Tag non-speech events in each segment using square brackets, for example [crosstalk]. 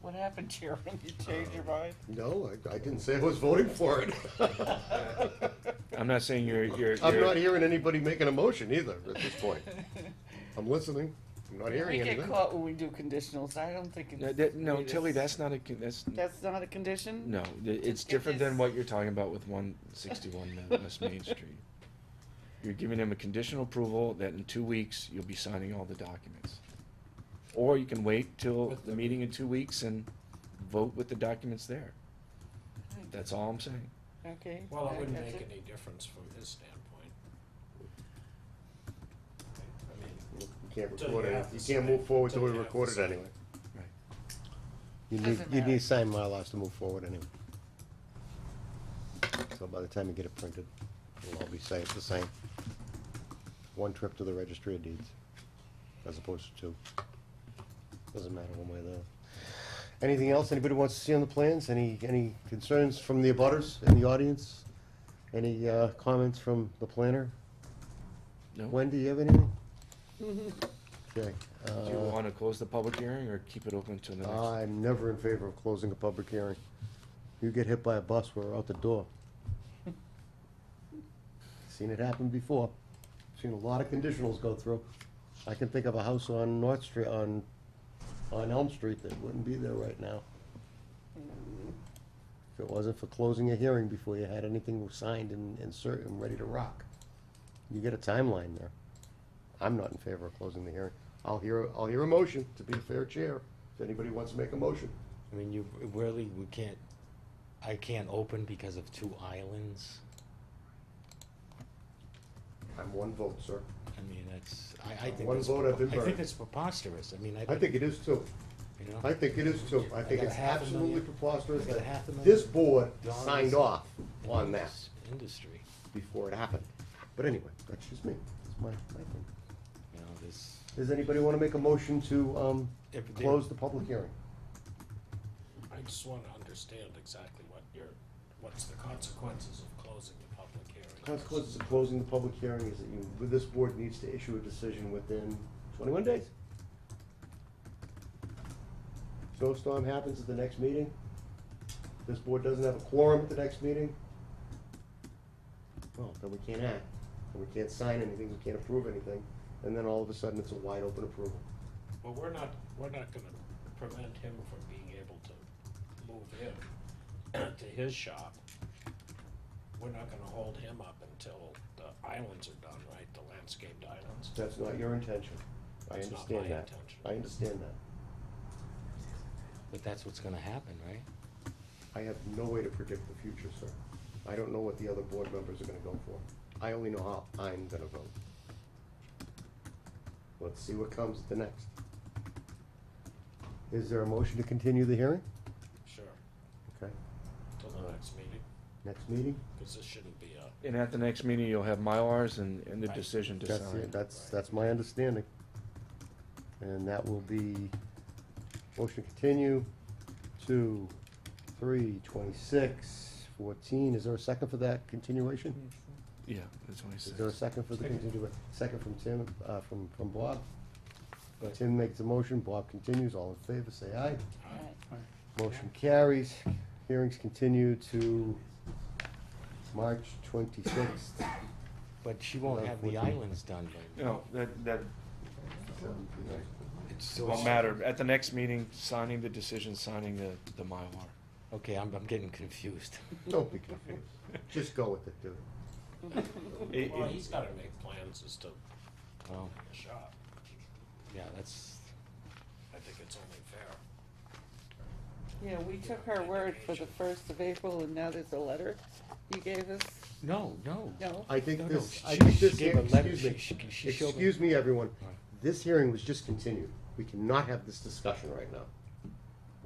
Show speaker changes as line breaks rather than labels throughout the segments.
What happened, Sharon? You changed your mind?
No, I, I didn't say I was voting for it. Uh,
I'm not saying you're, you're,
I'm
you're-
not hearing anybody making a motion either at this
[laughs]
point. I'm listening, I'm not
We
hearing
get
anything.
caught when we do conditionals. I don't think
No,
it's,
that- no, Tilly, that's not a, con- that's,
that's not a condition?
no, th- it's
It
different than
is.
what you're talking about with one sixty-one
[laughs]
West Main Street. You're giving them a conditional approval that in two weeks, you'll be signing all the documents. Or you can wait till the meeting in two weeks and vote with the documents there. That's all I'm saying.
Okay.
Well, it
I-
wouldn't
that's
make any difference from his standpoint. I mean,
You can't
Till
record
you
it,
have
you
to
can't
sign.
move forward till
Till
we
you have to
record it
sign.
anyway.
Right.
You need,
Doesn't
you
matter.
need signed MyLars to move forward anyway. So by the time you get it printed, it'll all be sa- the same. One trip to the registry of deeds, as opposed to two. Doesn't matter one way or the other. Anything else anybody wants to see on the plans? Any, any concerns from the abutters in the audience? Any, uh, comments from the planner?
No?
Wendy, you have anything? Okay.
Do you
uh,
wanna close the public hearing or keep it open till the
Uh,
next?
I'm never in favor of closing a public hearing. You get hit by a bus, we're out the door. Seen it happen before. Seen a lot of conditionals go through. I can think of a house on North Street, on, on Elm Street that wouldn't be there right now. If it wasn't for closing a hearing before you had anything signed and, and cert, and ready to rock. You get a timeline there. I'm not in favor of closing the hearing. I'll hear, I'll hear a motion to be a fair chair, if anybody wants to make a motion.
I mean, you really, we can't, I can't open because of two islands.
I'm one vote, sir.
I mean, that's, I, I think.
One
that's
vote, I've been
prepo- I
burned.
think it's preposterous. I mean, I.
I think it is too.
You know?
I think it is too. I think
got
it's
a half a
absolutely
million-
preposterous
I got a
that
half a
this
million
board
dollars
signed off
in
on that
this Industry,
before it happened. But anyway, that's just me. That's my, my thing.
you know, this.
Does anybody want to make a motion to, um,
if they-
close the public hearing?
I just wanna understand exactly what your, what's the consequences of closing the public hearing.
Consequences of closing the public hearing is that you, this board needs to issue a decision within twenty-one days. Snowstorm happens at the next meeting. This board doesn't have a quorum at the next meeting. Well, then we can't act, and we can't sign anything, we can't approve anything, and then all of a sudden, it's a wide open approval.
Well, we're not, we're not gonna prevent him from being able to move in [clears throat] to his shop. We're not gonna hold him up until the islands are done, right, the landscaped islands?
That's not your intention. I
That's not my
understand that.
intention.
I understand that.
But that's what's gonna happen, right?
I have no way to predict the future, sir. I don't know what the other board members are gonna go for. I only know how I'm gonna vote. Let's see what comes at the next. Is there a motion to continue the hearing?
Sure,
Okay,
till the next meeting,
next meeting?
cause this shouldn't be a.
And at the next meeting, you'll have Mylars and, and the
Right.
decision to
That's,
sign.
it. that's, that's my understanding. And that will be, motion to continue to three twenty-six fourteen. Is there a second for that continuation?
Yeah, that's what I
Is there a
said.
second for the
Second.
continuation? Second from Tim, uh, from, from Bob? Uh,
But-
Tim makes a motion, Bob continues, all in favor, say aye.
Alright.
Motion carries, hearings continue to March twenty-sixth.
But she won't have the islands done by.
No, that, that
It's so-
won't matter. At the next meeting, signing the decision, signing the, the Mylar.
Okay, I'm, I'm getting confused. [laughs]
Don't be confused, just go with it, dude.
It-
Well,
it-
he's gotta make plans as to
Oh,
the shop.
yeah, that's,
I think it's only fair.
[laughs] Yeah, we took her word for the first of April and now there's a letter you gave us.
no, no.
No?
I
No,
think
no,
this,
she-
I think
she
this,
gave a
hear-
letter.
excuse me,
She- she- she showed me-
excuse me, everyone,
Right.
this hearing was just continued, we cannot have this discussion right now.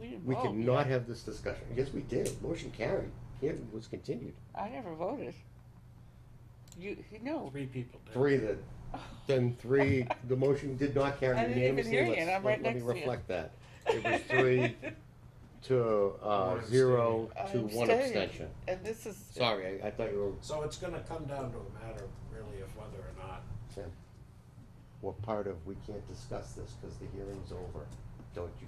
We didn't
We
vote.
cannot have this discussion, yes, we did, motion carried, it was continued.
I never voted. You, you know,
Three people did.
Three that, then three, the motion did not carry
I didn't even
unanimously.
hear you,
Let's-
and I'm
let-
right next to you.
Let me reflect that. It was
[laughs]
three to, uh,
One
zero to
I'm
one
staying.
abstention.
And this is.
Sorry, I, I thought you
So it's gonna come down to a matter really of whether or not
were, were part of, we can't discuss this because the hearing's over. Don't you